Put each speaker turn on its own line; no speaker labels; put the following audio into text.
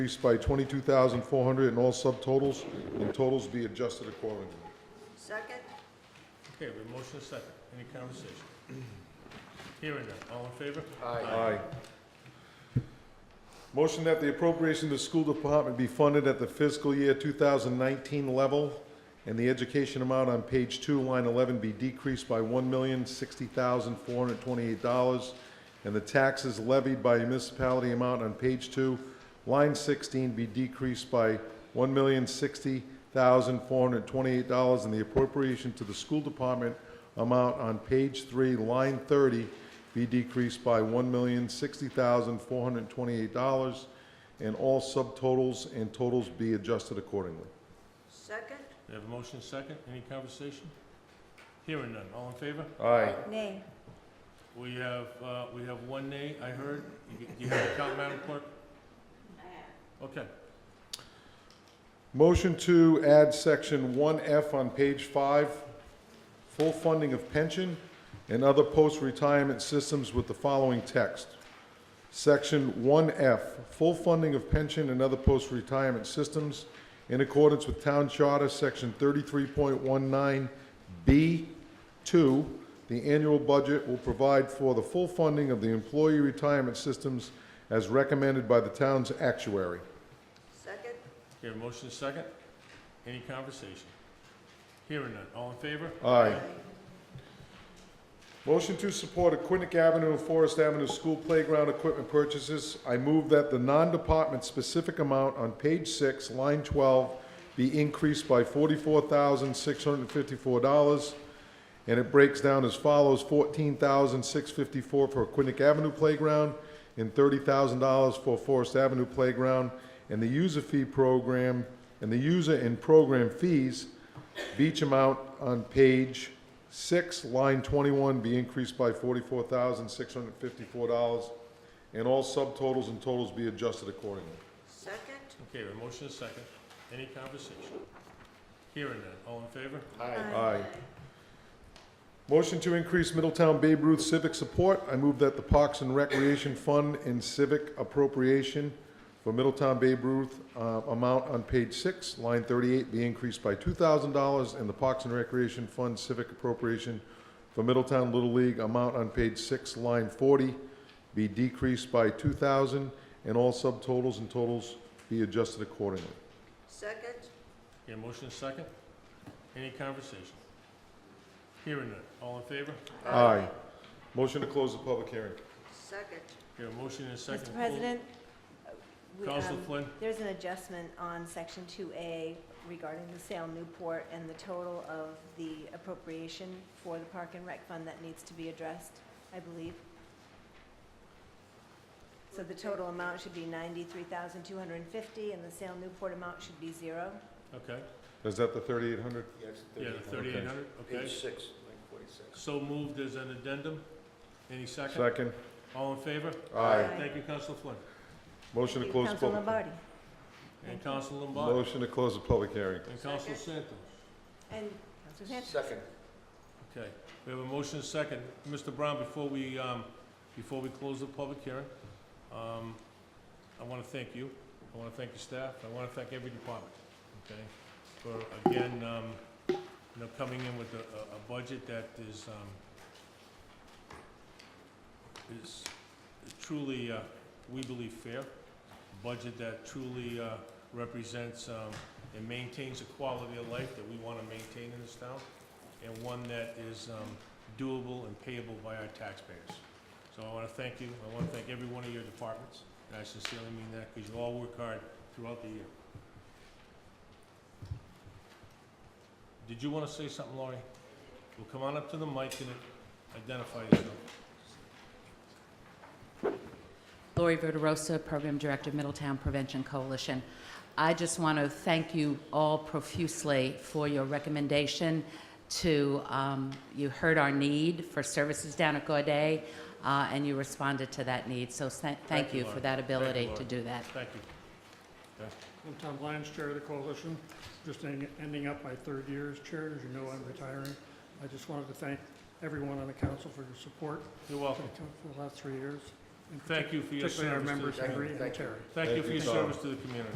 increased by twenty-two thousand four hundred in all subtotals, and totals be adjusted accordingly.
Second?
Okay, we have a motion and a second. Any conversation? Hearing none. All in favor?
Aye. Motion that the appropriation to school department be funded at the fiscal year 2019 level, and the education amount on page two, line 11, be decreased by $1,060,428, and the taxes levied by a municipality amount on page two, line 16, be decreased by $1,060,428, and the appropriation to the school department amount on page three, line 30, be decreased by $1,060,428, and all subtotals and totals be adjusted accordingly.
Second?
We have a motion and a second. Any conversation? Hearing none. All in favor?
Aye.
Nay.
We have, uh, we have one nay, I heard. You- You have a count, Madam Clerk? Okay.
Motion to add section 1F on page 5, full funding of pension and other post-retirement systems with the following text. Section 1F, full funding of pension and other post-retirement systems in accordance with Town Charter, Section 33.19B2. The annual budget will provide for the full funding of the employee retirement systems as recommended by the town's actuary.
Second?
We have a motion and a second. Any conversation? Hearing none. All in favor?
Aye. Motion to support Aquinic Avenue and Forest Avenue school playground equipment purchases. I move that the non-department specific amount on page six, line twelve, be increased by forty-four thousand, six hundred and fifty-four dollars. And it breaks down as follows, fourteen thousand, six fifty-four for Aquinic Avenue playground and thirty thousand dollars for Forest Avenue playground. And the user fee program, and the user and program fees Beach amount on page six, line twenty-one, be increased by forty-four thousand, six hundred and fifty-four dollars, and all subtotals and totals be adjusted accordingly.
Second?
Okay, we have a motion and a second. Any conversation? Hearing none. All in favor?
Aye. Motion to increase Middletown Babe Ruth civic support. I move that the Parks and Recreation Fund and civic appropriation for Middletown Babe Ruth uh, amount on page six, line thirty-eight, be increased by two thousand dollars, and the Parks and Recreation Fund civic appropriation for Middletown Little League amount on page six, line forty, be decreased by two thousand, dollars and all subtotals and totals be adjusted accordingly.
Second?
Okay, motion and a second. Any conversation? Hearing none. All in favor?
Aye. Motion to close the public hearing.
Second?
We have a motion and a second.
Mr. President, uh, we,
Counselor
um,
Flynn?
there's an adjustment on section two A regarding the sale Newport and the total of the appropriation for the Park and Rec Fund that needs to be addressed, I believe. So the total amount should be ninety-three thousand two hundred and fifty, and the sale Newport amount should be zero.
Okay.
Is that the thirty-eight hundred?
Yeah, the thirty-eight hundred, okay.
Page six, line forty-six.
So moved as an addendum. Any second?
Second.
All in favor?
Aye.
Thank you, Council Flynn.
Motion to close the
Council
public.
Lombardi.
And Council Lombardi.
Motion to close the public hearing.
And Council Santos.
And Council Sanchez.
Second,
Okay, we have a motion and a second. Mr. Brown, before we, um, before we close the public hearing, um, I want to thank you. I want to thank your staff. I want to thank every department, okay? For, again, um, you know, coming in with a, a- a budget that is, um, is truly, uh, we believe fair. Budget that truly, uh, represents, um, and maintains the quality of life that we want to maintain in this town and one that is um, doable and payable by our taxpayers. So I want to thank you, I want to thank every one of your departments, and I sincerely mean that, because you all work hard throughout the year. Did you want to say something, Laurie? Well, come on up to the mic and identify yourself.
Lori Verderosa, Program Director of Middletown Prevention Coalition. I just want to thank you all profusely for your recommendation to, um, you heard our need for services down at Gaudet, uh, and you responded to that need. So thank,
Thank
thank
you,
you
Lori.
for that
Thank you,
ability
Lori.
to do that.
Thank you.
I'm Tom Lyons, Chair of the Coalition, just en- ending up my third year as chair, as you know, I'm retiring. I just wanted to thank everyone on the council for your support
You're welcome.
for the last three years. and
Thank you for your
particularly
service
our
to the
members, Henry
community.
and Terry.
Thank you
Thank
for
you,
your
Tom.
service to the community.